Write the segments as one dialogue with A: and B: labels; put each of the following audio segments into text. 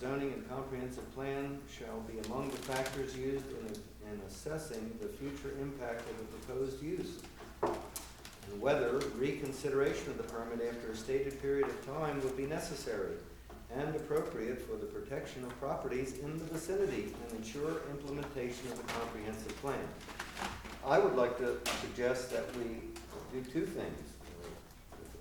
A: Zoning and comprehensive plan shall be among the factors used in, in assessing the future impact of the proposed use. And whether reconsideration of the permit after a stated period of time would be necessary and appropriate for the protection of properties in the vicinity and ensure implementation of the comprehensive plan. I would like to suggest that we do two things,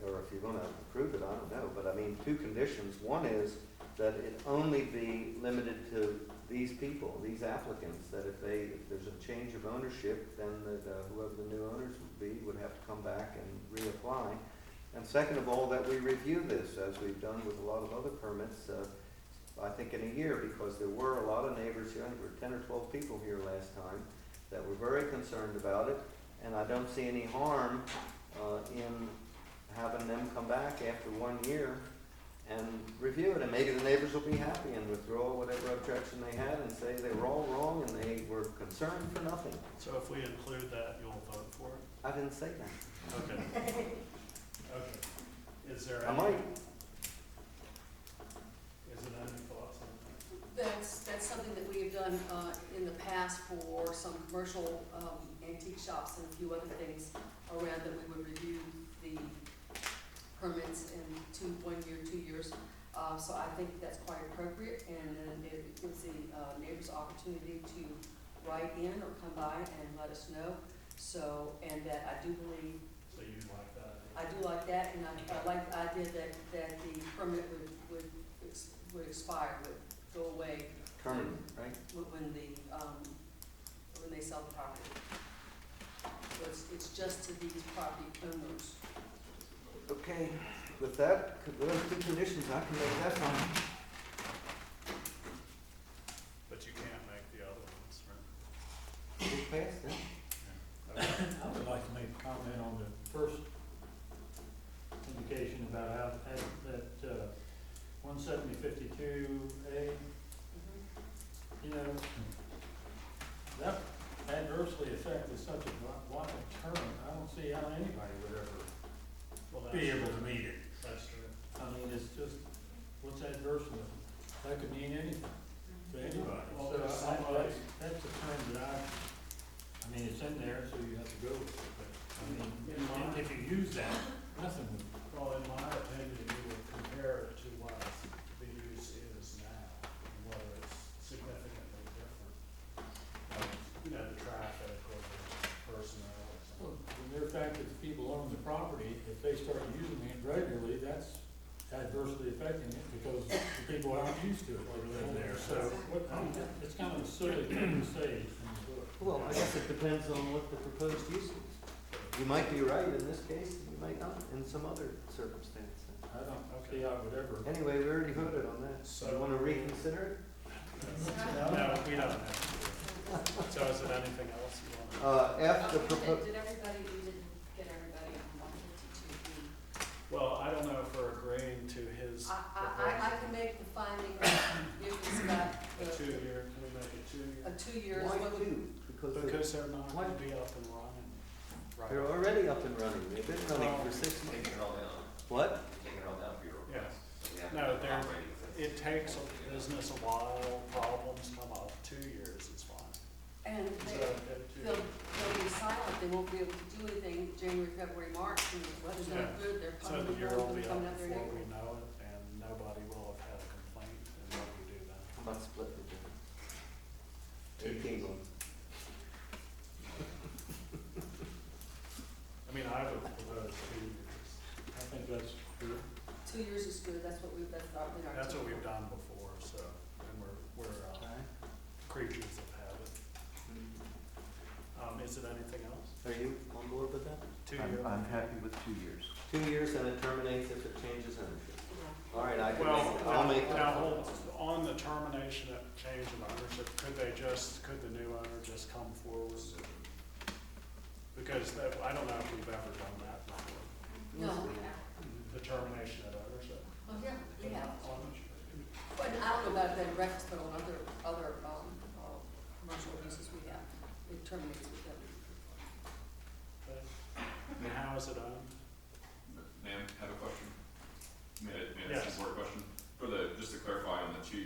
A: or if you're gonna approve it, I don't know, but I mean, two conditions. One is that it only be limited to these people, these applicants, that if they, if there's a change of ownership, then that uh, whoever the new owners would be would have to come back and reapply. And second of all, that we review this, as we've done with a lot of other permits, uh, I think in a year, because there were a lot of neighbors here, I think there were ten or twelve people here last time, that were very concerned about it, and I don't see any harm uh, in having them come back after one year and review it, and maybe the neighbors will be happy and withdraw whatever objection they had and say they were all wrong and they were concerned for nothing.
B: So if we include that, you'll vote for it?
A: I didn't say that.
B: Okay. Okay. Is there
A: I
B: any?
A: might.
B: Is it any thoughts on that?
C: That's, that's something that we have done uh, in the past for some commercial um, antique shops and a few other things around that we would review the permits in two, one year, two years. Uh, So I think that's quite appropriate and then it gives the uh, neighbors opportunity to write in or come by and let us know. So, and that I do believe,
B: So you like that?
C: I do like that and I- I like the idea that, that the permit would, would, ex- would expire, would go away
A: Kerman, right?
C: when- when the, um, when they sell the property. So it's, it's just to these property owners.
A: Okay, with that, with those two conditions, I can make that one.
B: But you can't make the other ones, right?
A: We passed it.
B: Okay.
D: I would like to make a comment on the first indication about how, that- that, uh, one seventy fifty-two A, you know, that adversely affected such a wide term, I don't see how anybody would ever
B: Well,
D: be
B: that's,
D: able to meet it.
B: that's true.
D: I mean, it's just, what's adversely, that could mean anything to anybody,
B: Well,
D: so
B: there's
D: I,
B: somebody-
D: that's, that's the term that I, I mean, it's in there, so you have to go with it, but, I mean,
B: In my-
D: if you use that, nothing would
B: Well, in my opinion, you would compare it to what the use is now, and whether it's significantly different. Like, You know, the traffic or the personnel or
D: Well,
B: something.
D: The mere fact that the people own the property, if they start using it regularly, that's adversely affecting it because the people aren't used to it over there. So what- I mean, it's kind of a silly thing to say in the book.
A: Well, I guess it depends on what the proposed use is. You might be right in this case, you might not in some other circumstance.
D: I don't see how it would ever.
A: Anyway, we already voted on that. So you wanna reconsider it?
B: No, we don't have to. So is there anything else you want?
A: Uh, F, the proposed.
C: Did everybody, you didn't get everybody on one fifty-two B?
B: Well, I don't know if we're agreeing to his
C: I, I, I- I can make the finding of difference about
B: proposal. a
C: the,
B: two-year, can we make it
C: a two years.
B: two-year?
A: Why two? Because they're-
B: Because they're not
A: Why?
B: gonna be up and running.
A: they're already up and running, they've been running for six months.
E: Take it all down,
A: What?
E: take it all down for your
B: Yeah.
E: request. So we have to be
B: No, they're-
E: operating with it.
B: It takes a business a while, problems come up, two years is fine.
C: And
B: So,
C: they,
B: if
C: they'll,
B: two,
C: they'll be silent, they won't be able to do anything January, February, March, and the weather's
B: Yeah.
C: not good, they're
B: so
C: coming,
B: the
C: they're
B: year will be up
C: coming out there.
B: before we know it, and nobody will have had a complaint, and then we do that.
A: How about split the difference?
B: Two.
A: Eighteen months.
B: I mean, I would propose two years.
D: I think that's true.
C: Two years is good, that's what we, that's our, been our.
B: That's what
C: typical.
B: we've done before, so, and we're, we're uh, creatures of habit. Um, is it anything else?
A: Are you on board with that?
B: Two
F: I'm,
B: years?
F: I'm happy with two years.
A: Two years and it terminates if it changes ownership.
C: Yeah.
A: All right, I can
B: Well,
A: make, it. I'll
B: now,
A: make.
B: now,
A: that.
B: hold- on the termination of change of ownership, could they just, could the new owner just come forward? Because that, I don't know if we've ever done that before,
C: No,
B: the termination of ownership.
C: oh, yeah, we have.
B: On-
C: But I don't know about bed and breakfast, but on other, other, um, uh, commercial uses we have, it terminates with them.
B: okay. And how is it owned?
G: Ma'am, I have a question. May I, may I
B: Yes.
G: ask a board question? For the, just to clarify on the two